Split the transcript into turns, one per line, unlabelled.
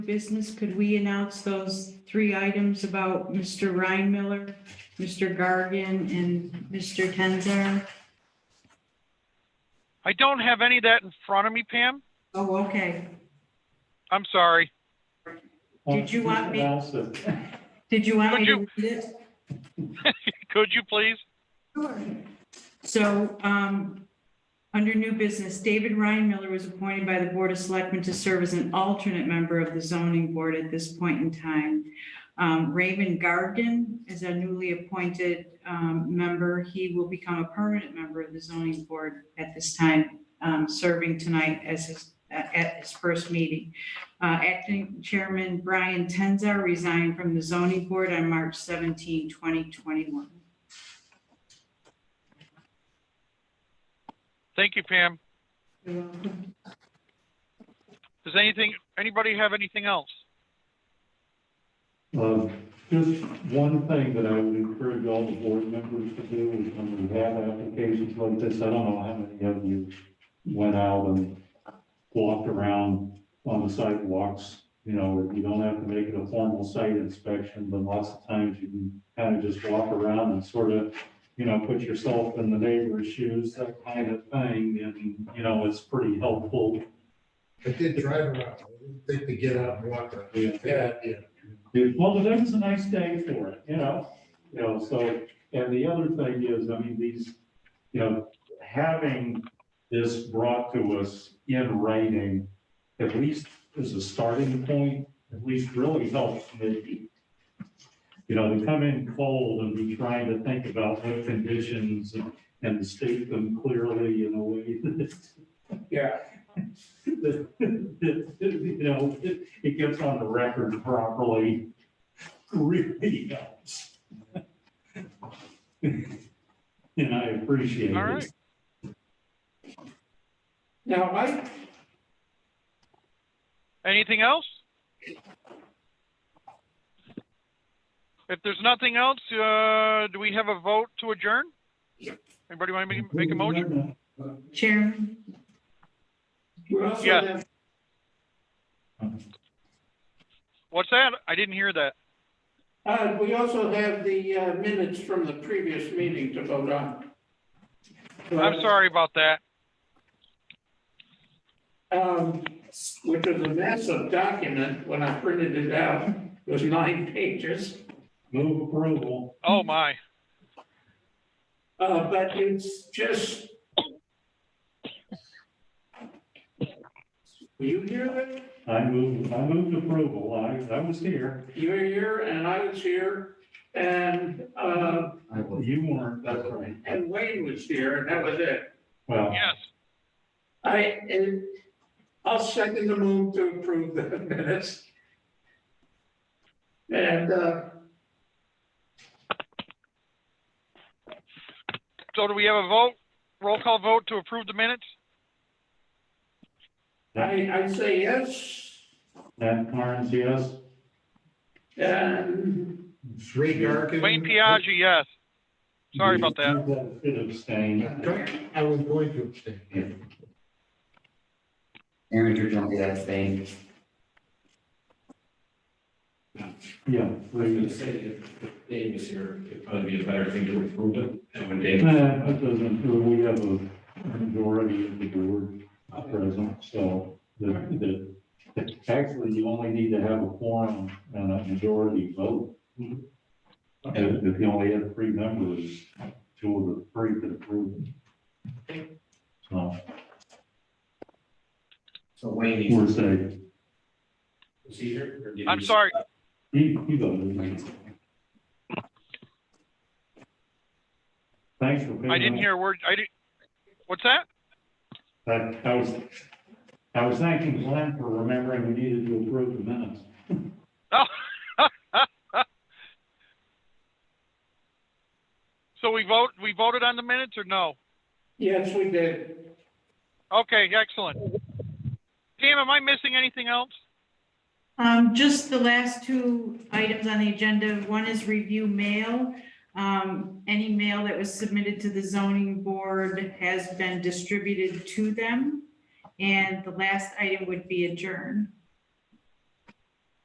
business, could we announce those three items about Mr. Ryan Miller, Mr. Gargan, and Mr. Tenzar?
I don't have any of that in front of me, Pam.
Oh, okay.
I'm sorry.
Did you want me-
Nelson.
Did you want me to
Would
read it?
Could you please?
Sure. So, um, under new business, David Ryan Miller was appointed by the Board of Selectmen to serve as an alternate member of the zoning board at this point in time. Um, Raymond Gargan is a newly appointed, um, member. He will become a permanent member of the zoning board at this time, um, serving tonight as his, uh, at his first meeting. Uh, acting chairman Brian Tenza resigned from the zoning board on March 17, 2021.
Thank you, Pam.
You're welcome.
Does anything, anybody have anything else?
Um, Just one thing that I would encourage all the board members to do is when we have applications like this, I don't know how many of you went out and walked around on the sidewalks, you know, you don't have to make it a formal site inspection, but lots of times you can kind of just walk around and sort of, you know, put yourself in the neighbor's shoes, that kind of thing, and, you know, it's pretty helpful
I did drive around, I didn't think to get out and walk around.
Yeah.
Yeah, yeah.
Yeah, Well, today was a nice day for it, you know, you know, so, and the other thing is, I mean, these, you know, having this brought to us in writing, at least as a starting point, at least really helps me. You know, to come in cold and be trying to think about what conditions and- and to state them clearly in a way that,
Yeah,
that, that, you know, it, it gets on the record properly, really helps. And I appreciate
All right.
it.
now I,
Anything else? If there's nothing else, uh, do we have a vote to adjourn? Anybody want to make, make a motion?
Chairman,
we also
Yeah.
have,
What's that? I didn't hear that.
uh, we also have the uh, minutes from the previous meeting to vote on.
I'm sorry about that.
Um, which was a massive document when I printed it out, it was nine pages.
Move approval.
Oh, my.
Uh, but it's just. Were you here then?
I moved, I moved approval. I, I was here.
You were here and I was here and, uh,
You weren't, that's right.
and Wayne was here and that was it.
Well,
Yes.
I, and I'll second the move to approve the minutes. And, uh,
So do we have a vote? Roll call vote to approve the minutes?
I, I say yes,
Nat Carnes, yes.
and
Ray Gargan.
Wayne Piaggi, yes. Sorry about that.
Should abstain.
I was going to abstain.
Aaron Turgeon, yes, thank
Yeah.
I was
we-
gonna say, if if Dave was here, it'd probably be a better thing to approve it, and when Dave.
Nah, Uh, It doesn't, we have a majority of the board present, so the, the, actually, you only need to have a quorum and a majority vote.
Mm-hmm.
And if you only have three members, two of the three could approve. it. So,
So Wayne
we're
needs to
safe.
see here. or did
I'm
he-
sorry.
He, he voted. Thanks for. picking
I didn't
up.
hear a word. I did. What's that?
I, I was, I was thanking Glenn for remembering we needed to approve the minutes.
Oh. So we vote, we voted on the minutes or no?
yes, we did.
Okay, excellent. Pam, am I missing anything else?
Um, just the last two items on the agenda. One is review mail. Um, any mail that was submitted to the zoning board has been distributed to them. And the last item would be adjourn.